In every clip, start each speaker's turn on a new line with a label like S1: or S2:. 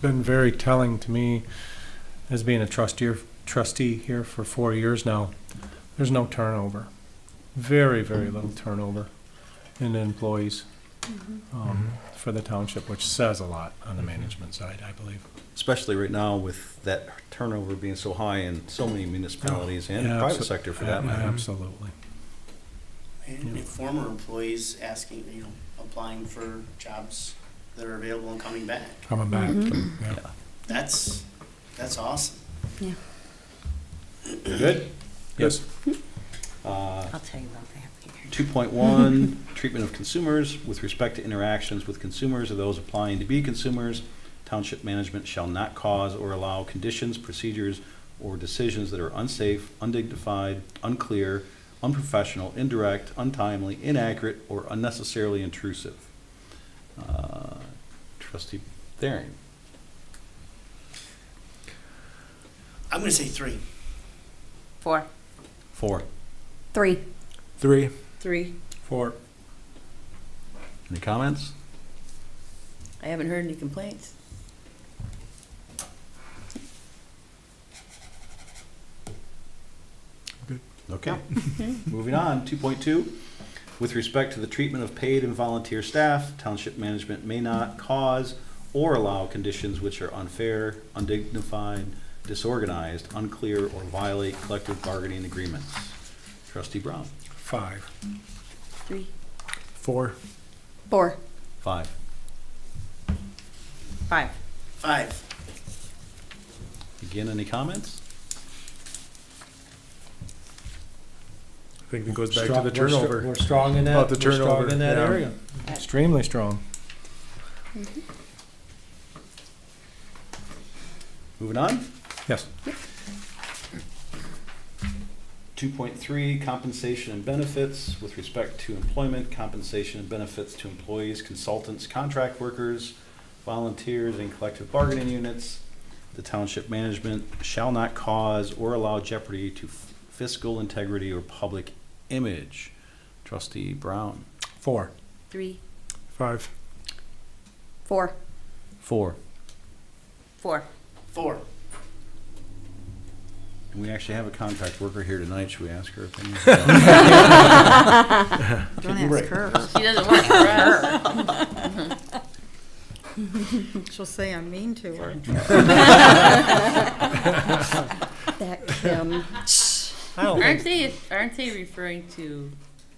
S1: been very telling to me, as being a trustee, trustee here for four years now, there's no turnover. Very, very little turnover in the employees um, for the township, which says a lot on the management side, I believe.
S2: especially right now with that turnover being so high in so many municipalities and
S1: Yeah,
S2: private
S1: abso-
S2: sector for that
S1: yeah,
S2: matter.
S1: Absolutely.
S3: And if former employees asking, you know, applying for jobs that are available and coming back.
S1: Coming back, yeah.
S3: That's, that's awesome.
S2: Good?
S1: Yes.
S4: I'll tell you about that later.
S2: Two point one, treatment of consumers with respect to interactions with consumers or those applying to be consumers. Township management shall not cause or allow conditions, procedures, or decisions that are unsafe, undignified, unclear, unprofessional, indirect, untimely, inaccurate, or unnecessarily intrusive. Uh, Trustee Thering,
S3: I'm gonna say three.
S4: Four.
S2: four.
S5: Three.
S1: Three.
S5: Three.
S1: Four.
S2: Any comments?
S4: I haven't heard any complaints.
S2: Okay. Moving on, two point two. With respect to the treatment of paid and volunteer staff, township management may not cause or allow conditions which are unfair, undignified, disorganized, unclear, or violate collective bargaining agreements. Trustee Brown,
S1: Five.
S4: Three.
S1: Four.
S5: Four.
S2: five.
S4: Five.
S3: Five.
S2: Again, any comments?
S6: I think it goes back
S1: Strong-
S6: to the
S1: we're str-
S6: turnover.
S1: We're strong in that,
S6: About
S1: we're
S6: the
S1: strong
S6: turnover,
S1: in that
S6: yeah.
S1: area. Extremely strong.
S2: Moving on,
S1: Yes.
S2: two point three, compensation and benefits. With respect to employment, compensation and benefits to employees, consultants, contract workers, volunteers, and collective bargaining units. The township management shall not cause or allow jeopardy to fiscal integrity or public image. Trustee Brown.
S1: Four.
S4: Three.
S6: Five.
S5: Four.
S2: Four.
S4: Four.
S3: Four.
S2: And we actually have a contract worker here tonight. Should we ask her opinion?
S7: Don't ask her.
S4: She doesn't work for us.
S7: She'll say I'm mean to her.
S5: That um, Kim.
S1: Oh.
S4: Aren't they, aren't they referring to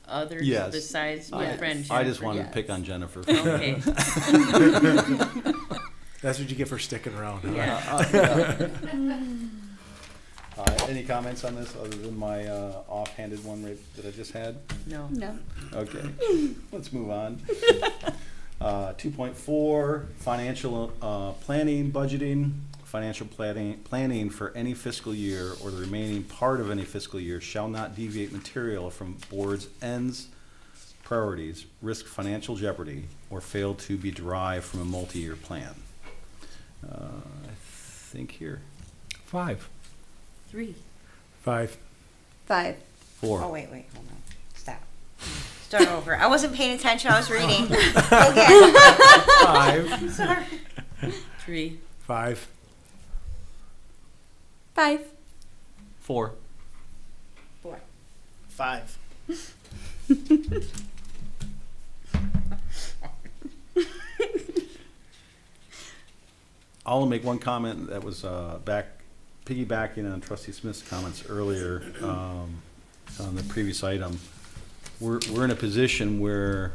S4: others
S2: Yes.
S4: besides my
S2: I
S4: friend?
S2: I just wanted to
S4: Jennifer?
S2: pick on Jennifer.
S4: Okay,
S6: That's what you get for sticking around. huh?
S4: yeah.
S2: Uh, any comments on this other than my uh, offhanded one right, that I just had?
S4: No.
S5: No.
S2: Okay, let's move on. Uh, two point four, financial, uh, planning, budgeting. Financial planning, planning for any fiscal year or the remaining part of any fiscal year shall not deviate material from board's ends, priorities, risk financial jeopardy, or fail to be derived from a multi-year plan. Uh, I think here,
S1: Five.
S4: Three.
S6: Five.
S5: Five.
S2: four.
S7: Oh, wait, wait, hold on. Stop. Start over. I wasn't paying attention. I was reading. Okay.
S6: Five.
S4: Three.
S6: Five.
S5: Five.
S2: Four.
S4: Four.
S3: Five.
S2: I'll make one comment that was uh, back, piggybacking on trustee Smith's comments earlier um, on the previous item. We're, we're in a position where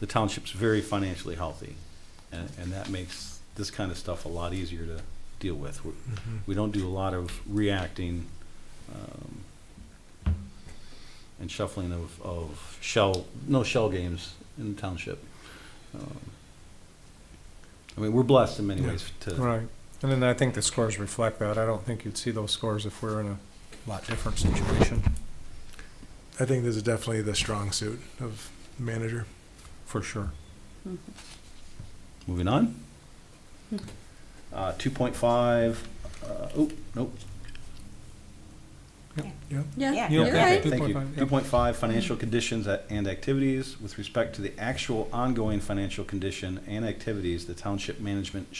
S2: the township's very financially healthy, and, and that makes this kind of stuff a lot easier to deal with. We're-
S1: Mm-hmm.
S2: We don't do a lot of reacting um, and shuffling of, of shell, no shell games in the township. Um, I mean, we're blessed in many
S1: Yeah.
S2: ways to,
S1: Right. And then I think the scores reflect that. I don't think you'd see those scores if we're in a lot different situation,
S6: I think this is definitely the strong suit of manager.
S1: for sure.
S2: Moving on. Uh, two point five, uh, oh, nope.
S7: Yeah.
S1: You
S7: You're
S1: okay?
S5: right.
S2: Thank you.
S1: 2.5,
S2: Two
S1: yep.
S2: point five, financial conditions a- and activities. With respect to the actual ongoing financial condition and activities, the township management